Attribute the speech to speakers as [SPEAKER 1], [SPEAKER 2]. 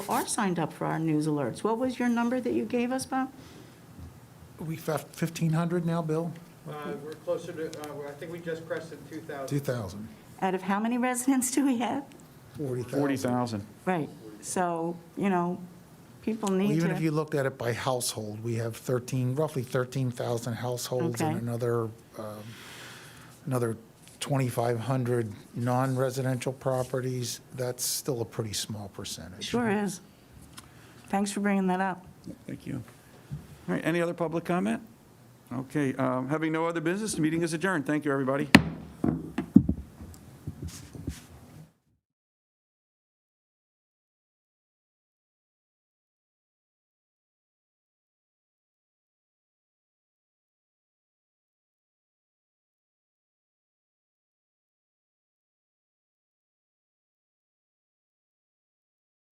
[SPEAKER 1] are signed up for our news alerts. What was your number that you gave us, Bob?
[SPEAKER 2] We have 1,500 now, Bill?
[SPEAKER 3] Uh, We're closer to, uh, we're- I think we just crested 2,000.
[SPEAKER 2] 2,000.
[SPEAKER 1] Out of how many residents do we have?
[SPEAKER 4] 40,000.
[SPEAKER 1] Right, so, you know, people need
[SPEAKER 2] Even if you
[SPEAKER 1] to,
[SPEAKER 2] looked at it by household, we have 13, roughly 13,000 households and
[SPEAKER 1] Okay.
[SPEAKER 2] another, um, another 2,500 non-residential properties. That's still a pretty small percentage.
[SPEAKER 1] sure is. Thanks for bringing that up.
[SPEAKER 4] Thank you. All right, any other public comment? Okay, um, having no other business, the meeting is adjourned. Thank you, everybody.